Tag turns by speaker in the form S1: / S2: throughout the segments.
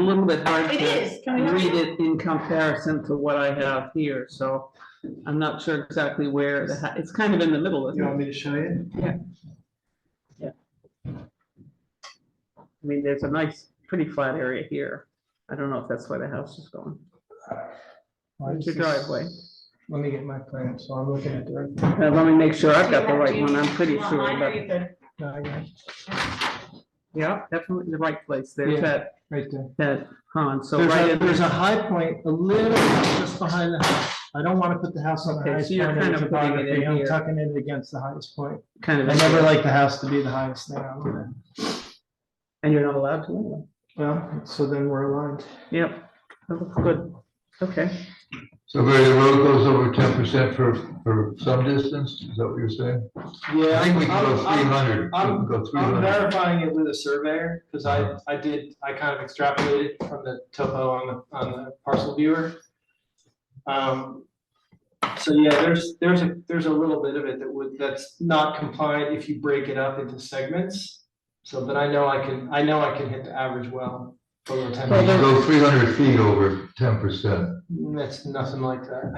S1: little bit hard
S2: It
S1: to
S2: is. Can we not-
S1: read it in comparison to what I have here, so I'm not sure exactly where the, ha- it's kind of in the middle, isn't
S3: You want
S1: it?
S3: me to show you?
S1: I mean, there's a nice, pretty flat area here. I don't know if that's where the house is going. It's your driveway.
S3: Let me get my plan, so I'm looking at the right.
S1: Now, Uh, let me make sure I've got the
S2: Do you have-
S1: right
S2: do you
S1: one, I'm
S2: need-
S1: pretty
S2: you want
S1: sure,
S2: mine or
S1: but,
S2: you good?
S3: no, I got it,
S1: yeah, definitely the right place, there's
S3: Yeah.
S1: that,
S3: Right there.
S1: that pond, so
S3: There's
S1: right
S3: a,
S1: in
S3: there's
S1: there.
S3: a high point, a little just behind the house. I don't want to put the house on the
S1: Okay,
S3: highest
S1: so you're
S3: point. of
S1: kind
S3: the
S1: of putting it in
S3: topography. I'm
S1: here.
S3: tucking it against the highest point.
S1: Kind of,
S3: I
S1: in
S3: never
S1: there.
S3: like the house to be the highest thing on there.
S1: and you're not allowed to. anyway.
S3: Well, so then we're aligned.
S1: Yep, that looks good, okay.
S4: So Barry, the road goes over ten percent for, for some distance, is that what you're saying? I think we can go three hundred,
S3: I'm-
S4: go three
S3: I'm
S4: hundred.
S3: verifying it with a surveyor, because I, I did, I kind of extrapolated from the topo on the, on the parcel viewer. Um, so yeah, there's, there's a, there's a little bit of it that would, that's not compliant if you break it up into segments. So, but I know I can, I know I can hit the average well below ten.
S1: Well, there-
S4: Go three hundred feet over ten percent.
S3: That's nothing like that.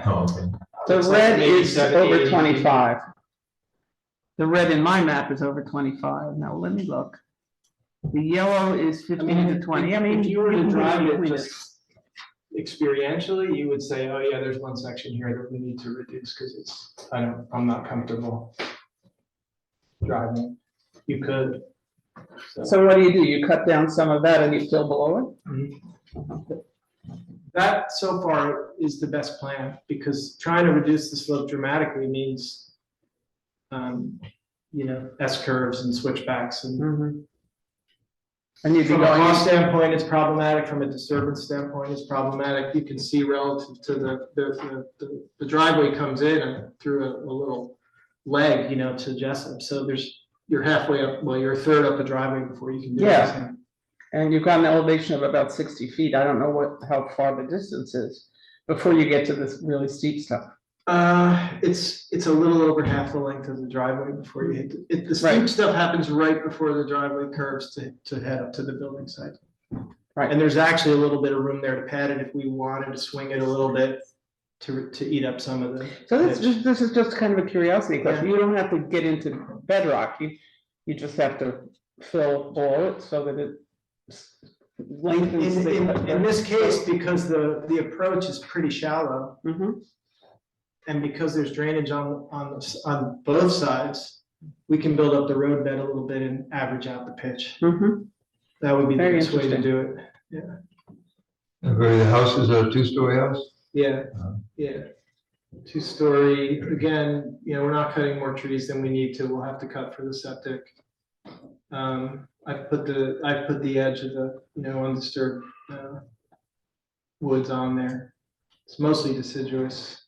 S1: The
S3: It's like
S1: red
S3: maybe
S1: is
S3: 70,
S1: over
S3: 80.
S1: twenty-five. The red in my map is over twenty-five. Now, let me look. The yellow is
S3: I
S1: fifteen
S3: mean,
S1: to
S3: if
S1: twenty. I mean.
S3: if you were to
S1: can
S3: drive
S1: read
S3: it
S1: between
S3: just experientially, you would say, oh yeah, there's one section here that we need to reduce because it's, I don't, I'm not comfortable driving. You could.
S1: So what do you do? You cut down some of that and you still below
S3: That so far is the best plan because trying to reduce the slope dramatically means, um, you know, S curves and switchbacks
S1: it?
S3: and
S1: Mhm. And you'd be
S3: Mm-hmm. From a cost
S1: going,
S3: standpoint, it's problematic, from a disturbance standpoint, it's problematic, you can see relative to the, the, the- the driveway comes in and through a, a little leg, you know, to Jessup, so there's, you're halfway up, well, you're a third up the driveway before you can do
S1: Yeah.
S3: anything.
S1: and you've got an elevation of about sixty feet. I don't know what, how far the distance is before you get to this really steep stuff.
S3: Uh, it's, it's a little over half the length of the driveway before you hit, the- it, the steep
S1: Right.
S3: stuff happens right before the driveway curves to, to head up to the building site.
S1: Right.
S3: And there's actually a little bit of room there to pad it if we wanted to swing it a little bit to, to eat up some of the.
S1: So this,
S3: pitch.
S1: just- this is just kind of a curiosity question.
S3: Yeah.
S1: You don't have to get into bedrock. You, you just have to fill below it so that it s-
S3: In,
S1: lengthens. the-
S3: in- in this case, because the, the approach is pretty shallow,
S1: Mhm.
S3: and because there's drainage on, on, the s- on both sides, we can build up the road bed a little bit and average out the pitch.
S1: Mhm.
S3: That would be the
S1: Very
S3: best way to
S1: interesting.
S3: do it.
S4: And Barry, the house is a two-story house?
S3: Yeah,
S4: Uh-huh.
S3: yeah. Two-story, again, you know, we're not cutting more trees than we need to, we'll have to cut for the septic. Um, I've put the, I've put the edge of the, you know, undisturbed, uh, woods on there. It's mostly deciduous.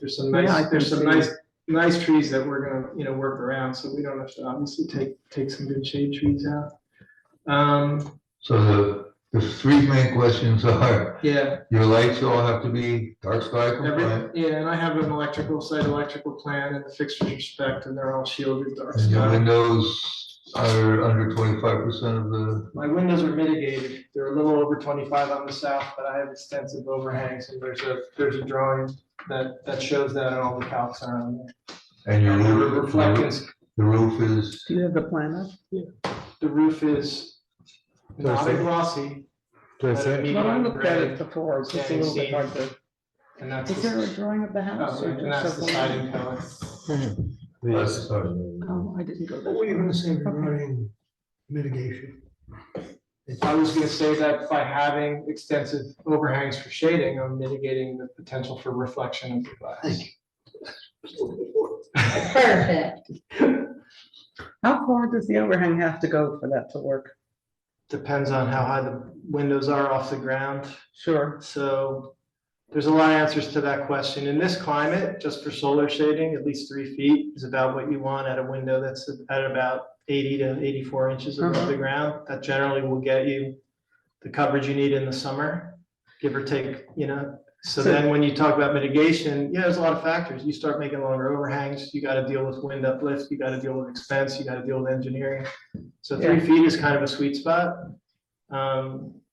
S3: There's some
S1: Yeah, I
S3: nice,
S1: can
S3: there's some
S1: see.
S3: nice, nice trees that we're gonna, you know, work around, so we don't have to obviously take, take some good shade trees out. Um,
S4: So the, the three main questions are,
S3: yeah,
S4: your lights all have to be dark sky compliant?
S3: Every, yeah, and I have an electrical, site electrical plan and the fixtures are spec and they're all shielded dark
S4: And your
S3: sky.
S4: windows are under twenty-five percent of the,
S3: My windows are mitigated. They're a little over twenty-five on the south, but I have extensive overhangs and there's a, there's a drawing that, that shows that and all the calcs are on there.
S4: and your
S3: And the
S4: roof,
S3: reflectance,
S4: the roof is,
S1: Do you have the plan up?
S3: the roof is not
S4: Perfect.
S3: glossy.
S4: That's
S3: but a
S4: it.
S1: Well, I
S3: medium
S1: looked at it
S3: gray,
S1: before, it's just a
S3: Yeah,
S1: little bit
S3: you
S1: hard to.
S3: And that's,
S1: Is there a
S3: the-
S1: drawing of the house?
S3: oh,
S1: or
S3: and
S1: just
S3: that's the
S1: something?
S3: siding color.
S4: that's, sorry.
S1: Oh, I didn't go
S5: What were you
S1: there.
S5: gonna say
S1: Okay.
S5: regarding mitigation?
S3: I was gonna say that by having extensive overhangs for shading, I'm mitigating the potential for reflection of the glass.
S2: Perfect.
S1: How far does the overhang have to go for that to work?
S3: Depends on how high the windows are off the ground,
S1: Sure.
S3: so there's a lot of answers to that question. In this climate, just for solar shading, at least three feet is about what you want at a window that's at about eighty to eighty-four inches above the ground. That generally will get you the coverage you need in the summer, give or take, you know? So
S1: So-
S3: then when you talk about mitigation, yeah, there's a lot of factors. You start making longer overhangs, you gotta deal with wind uplift, you gotta deal with expense, you gotta deal with engineering. So three feet is kind of a sweet spot. Um,